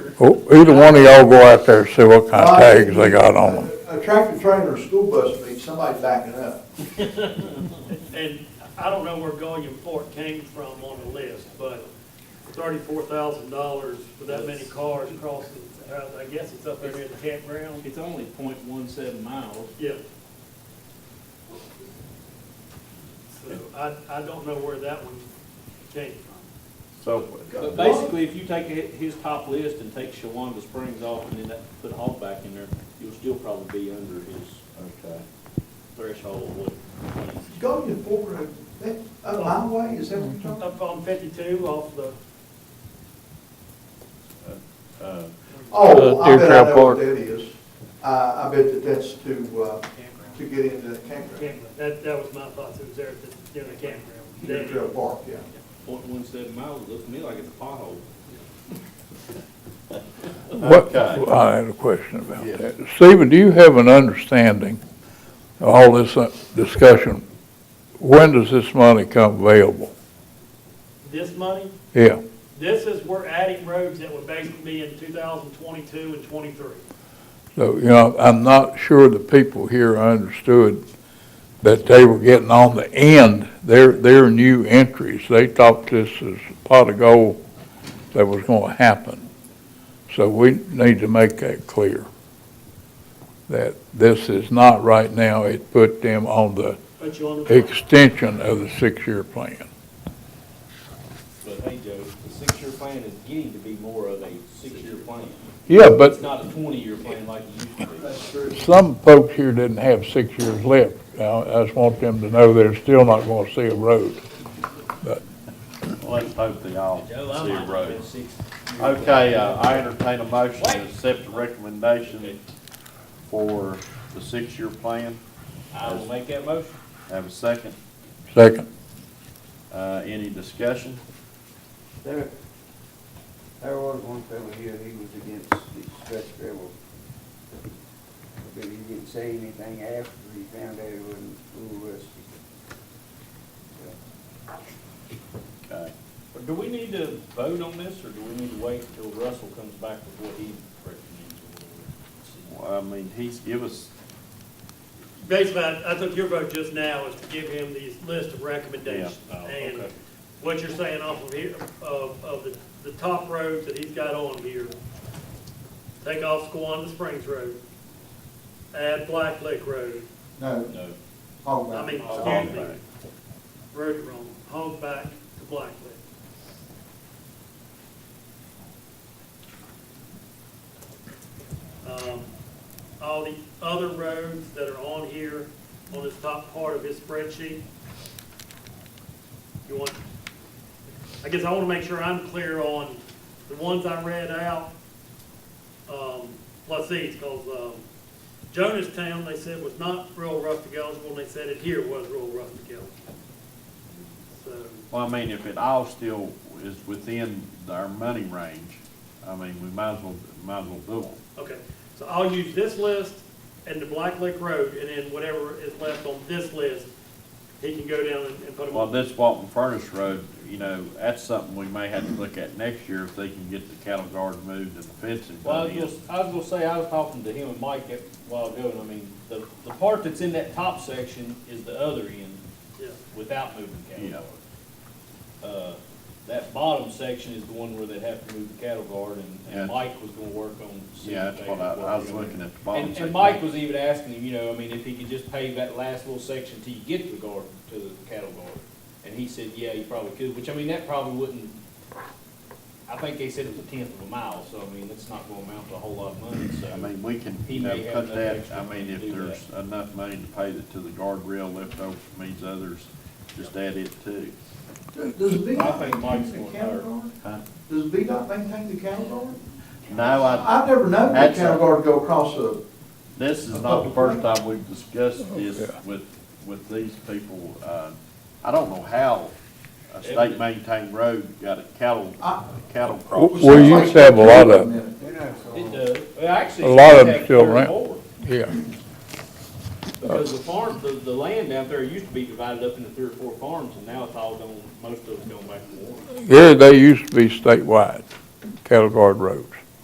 Oh, Either one of y'all go out there and see what kind of tags they got on them. A tractor trailer or school bus meets somebody backing up. And I don't know where Gulliam Fort came from on the list, but thirty-four thousand dollars for that many cars crossing, uh, I guess it's up there near the campground. It's only 0.17 miles. Yeah. So I, I don't know where that one came from. So. But basically, if you take hi- his top list and take Shawanda Springs off and then that, put Hall back in there, you'll still probably be under his Okay. threshold of what. Go to Fort Road, that, up my way, is that what you're Uh, talking about? Up on fifty-two off the, Uh, Oh, I Deer bet Trail I know Park. what that is. I, I bet that that's to, uh, to get into the campground. campground, that, that was my thoughts, it was there at the, near the Deer Trail campground. Park, yeah. Point one seven miles looks to me like it's a pothole. What, Okay. I had a question about Yes. that. Stephen, do you have an understanding of all this uh, discussion? When does this money come available? This money, Yeah, this is, we're adding roads that would basically be in two thousand twenty-two and twenty-three. so, you know, I'm not sure the people here understood that they were getting on the end, their, their new entries. They thought this is a pot of gold that was gonna happen. So we need to make that clear, that this is not right now, it put them on the Put you on the. extension of the six-year plan. But hey, Joe, the six-year plan is getting to be more of a six-year plan. Yeah, It's but not a twenty-year plan like it used to be. true. some folks here didn't have six years left. Now, I just want them to know they're still not going to see a road. Let's hope they all see Joe, I might a have been road. six. Okay, uh, I entertain a motion to accept the recommendation for the six-year plan. I will make that motion. Have a second. Second, Uh, Any discussion? There, there was one fellow here, he was against the stretch railroad. But he didn't say anything after he found out it wasn't school bus. Okay. Do we need to vote on this, or do we need to wait until Russell comes back with what he recommends? Well, I mean, he's give us, Basically, I I took your vote just now is to give him the list of recommendations. Yeah. Oh, And okay. what you're saying off of here, of, of the, the top roads that he's got on here, take off Squanah Springs Road, add Black Lake Road, No, No. Hogback. I mean, all excuse me, back. road wrong, home back to Black Lake. Um, All the other roads that are on here, on this top part of his spreadsheet. You want, I guess I want to make sure I'm clear on the ones I read out. Um, Plus these, because, um, Jonestown, they said was not real rustic eligible, and they said it here was real rustic eligible. So, well, I mean, if it all still is within our money range, I mean, we might as well, might as well do them. okay, so I'll use this list and the Black Lake Road, and then whatever is left on this list, he can go down and, and put them Well, on. this Walton Furnace Road, you know, that's something we may have to look at next year if they can get the cattle guard moved and the fencing Well, I done was in. gonna, I was gonna say, I was talking to him and Mike a while ago, and I mean, the, the part that's in that top section is the other end Yeah, without moving cattle Yeah. guard. Uh, that bottom section is the one where they have to move the cattle guard, and, Yeah. and Mike was gonna work on. seeing Yeah, if they that's what I, could work I was on it. looking at the bottom And, section. and Mike was even asking him, you know, I mean, if he could just pave that last little section till you get to the guard, to the cattle guard. And he said, yeah, you probably could, which, I mean, that probably wouldn't, I think they said it was a tenth of a mile, so, I mean, that's not gonna amount to a whole lot of money, I so. mean, we can, He you know, may have cut enough that, extra I money mean, to if do there's enough money to pay that to the guardrail left over from these others, just add it too. Does does I think VDOT maintain Mike's the going cattle higher. guard? Huh? Does VDOT maintain the cattle guard? No, I, I've never known the That's a- cattle guard go across a, this is not the first time we've discussed this with, with these people. Uh, I don't know how a state maintained road got a cattle, I. cattle W- crossing. we used to have a lot of, them. They're not so. It does, well, actually. A it's lot of got them still three or around. four, yeah. Because the farm, the, the land down there used to be divided up into three or four farms, and now it's all gone, most of it's gone back to one. Here, they used to be statewide, cattle guard road.